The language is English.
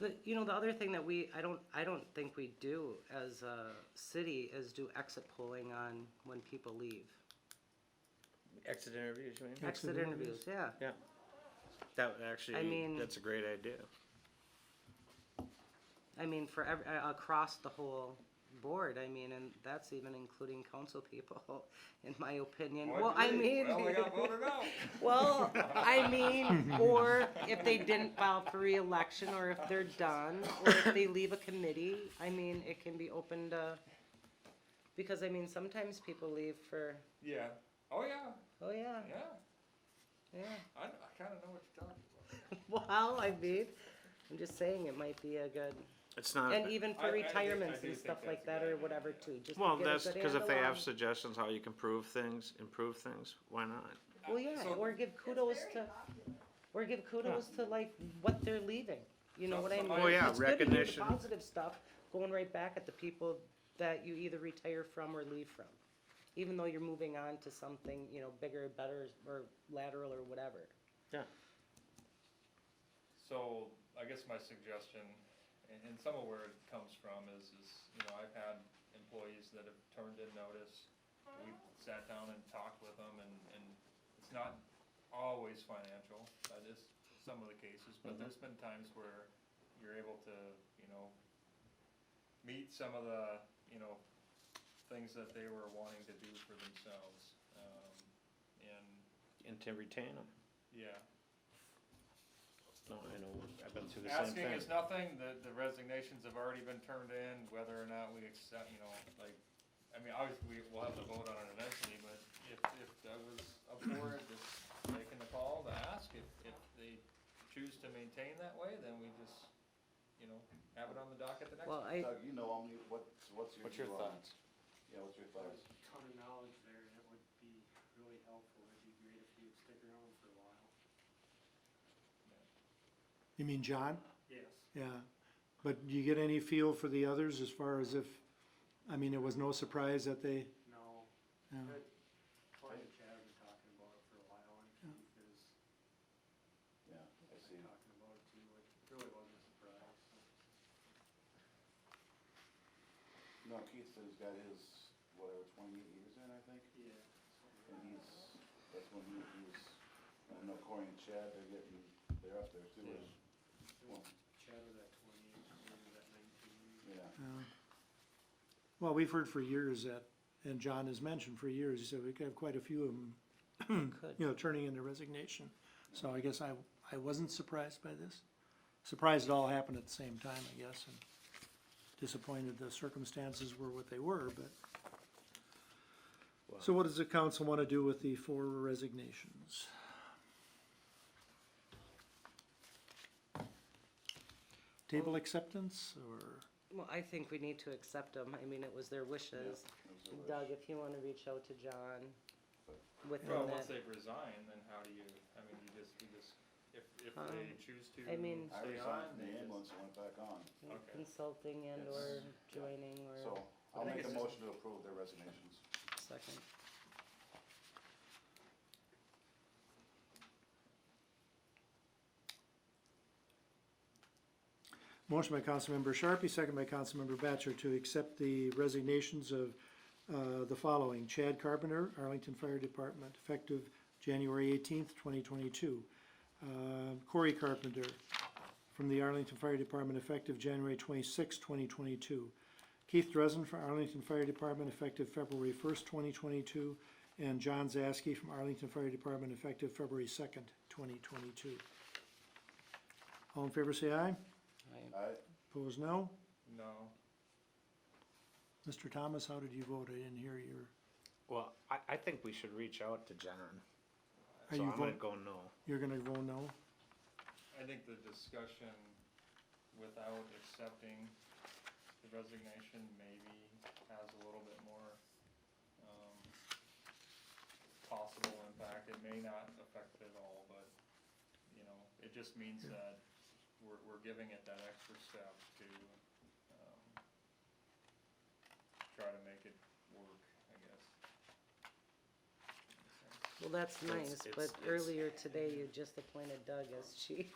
The, you know, the other thing that we, I don't, I don't think we do as a city is do exit polling on when people leave. Exit interviews, you mean? Exit interviews, yeah. Yeah. That would actually, I mean- that's a great idea. I mean, for ev- uh, across the whole board, I mean, and that's even including council people, in my opinion. Well, I mean. Well, they got voted out. Well, I mean, or if they didn't file for reelection, or if they're done, or if they leave a committee, I mean, it can be opened, uh, because I mean, sometimes people leave for, Yeah. Oh, yeah. oh yeah, Yeah. yeah. I, kn- I kind of know what you're talking about. Well, I mean, I'm just saying it might be a good, It's not, and even I- I for think- I retirements do and think stuff that's like a that good or idea. whatever too, just to well, get a that's good because if they handle have on- suggestions how you can prove things, improve things, why not? Well, yeah, So- or give kudos to, or give kudos to like what they're leaving, you know So- what I so mean? I- Well, yeah, It's good to hear the recognition. Positive stuff, going right back at the people that you either retire from or leave from. Even though you're moving on to something, you know, bigger, better, or lateral or whatever. Yeah. So I guess my suggestion, and, and some of where it comes from is, is, you know, I've had employees that have turned in notice. We sat down and talked with them and, and it's not always financial, that is some of the cases, but there's been times where you're able to, you know, meet some of the, you know, things that they were wanting to do for themselves. Um, and, And to retain them. yeah, No, I know, I've been through the same Asking thing. is nothing, the, the resignations have already been turned in, whether or not we accept, you know, like, I mean, obviously, we, we'll have to vote on it eventually, but if, if I was up for it, just making the call to ask, if, if they choose to maintain that way, then we just, you know, have it on the docket the next. Well, I, Doug, you know, how many- what's, what's your. What's your view on thoughts? it? Yeah, what's your There's thoughts? a ton of knowledge there, and it would be really helpful, it'd be great if you'd stick around for a while. You mean John? Yes. Yeah. But do you get any feel for the others as far as if, I mean, it was no surprise that they, No, yeah. good, Claudia and Chad have been talking about it for a while, and Keith is Yeah, I see. been talking about it too, it really wasn't a surprise. No, Keith said he's got his, whatever, twenty-eight years in, I think, Yeah. and he's, that's when he, he was, I know Corey and Chad, they're getting, they're up there too. Yeah. Well, Chad was at twenty-eight, Claudia was at nineteen. Yeah, yeah. Well, we've heard for years that, and John has mentioned for years, he said we could have quite a few of them, you know, turning in their resignation. So I guess I, I wasn't surprised by this. Surprised it all happened at the same time, I guess, and disappointed the circumstances were what they were, but. So what does the council wanna do with the four resignations? Table acceptance, or? well, I think we need to accept them. I mean, it was their wishes. it was a wish. Doug, if you wanna reach out to John within Well, that, once they've resigned, then how do you, I mean, you just, you just, if, if Um, they choose to I mean- I stay on, resigned from they the just. ambulance and went back on, okay. consulting and It's- or yeah. joining or so I'll think make it's a just- motion to approve their resignations. second. Motion by Councilmember Sharpie, second by Councilmember Batchor to accept the resignations of uh, the following. Chad Carpenter, Arlington Fire Department, effective January eighteenth, twenty twenty-two. Corey Carpenter from the Arlington Fire Department, effective January twenty-sixth, twenty twenty-two. Keith Dresen from Arlington Fire Department, effective February first, twenty twenty-two. And John Zaski from Arlington Fire Department, effective February second, twenty twenty-two. All in favor, say aye. Alright, Opposed, no. No, Mr. Thomas, how did you vote? I didn't hear your, Well, I, I think we should reach out to John, Are so you I'm gonna vote- go no. you're gonna vote no? I think the discussion without accepting the resignation maybe has a little bit more, um, possible impact. It may not affect it at all, but, you know, it just means that we're, we're giving it that extra step to, um, try to make it work, I guess. Well, that's It's- nice, it's- but it's- earlier today you just appointed Doug as chief.